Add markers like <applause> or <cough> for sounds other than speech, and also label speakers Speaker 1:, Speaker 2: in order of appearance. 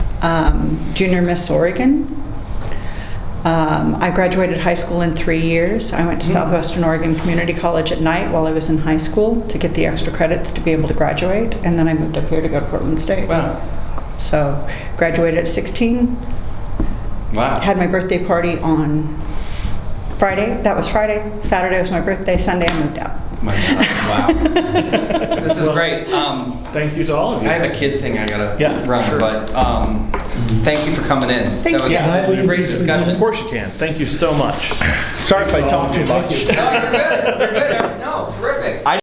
Speaker 1: um, junior Miss Oregon. Um, I graduated high school in three years. I
Speaker 2: Mm-hmm.
Speaker 1: went to Southwestern Oregon Community College at night while I was in high school to get the extra credits to be able to graduate, and then I moved up here to go to Portland State.
Speaker 2: Wow.
Speaker 1: So, graduated at 16,
Speaker 2: Wow.
Speaker 1: had my birthday party on Friday. That was Friday. Saturday was my birthday. Sunday, I moved out.
Speaker 2: My God.
Speaker 1: <laughs>
Speaker 2: Wow. This is great. Um,
Speaker 3: Thank you to all of
Speaker 2: I
Speaker 3: you.
Speaker 2: have a kid thing I gotta
Speaker 3: Yeah,
Speaker 2: run,
Speaker 3: sure.
Speaker 2: but um, thank you for coming in.
Speaker 1: Thank
Speaker 2: that was
Speaker 1: you.
Speaker 3: Yeah,
Speaker 2: a great discussion.
Speaker 3: Of course you can. Thank you so much.
Speaker 4: Sorry if I talk too much.
Speaker 2: No, you're good. You're good. No, terrific.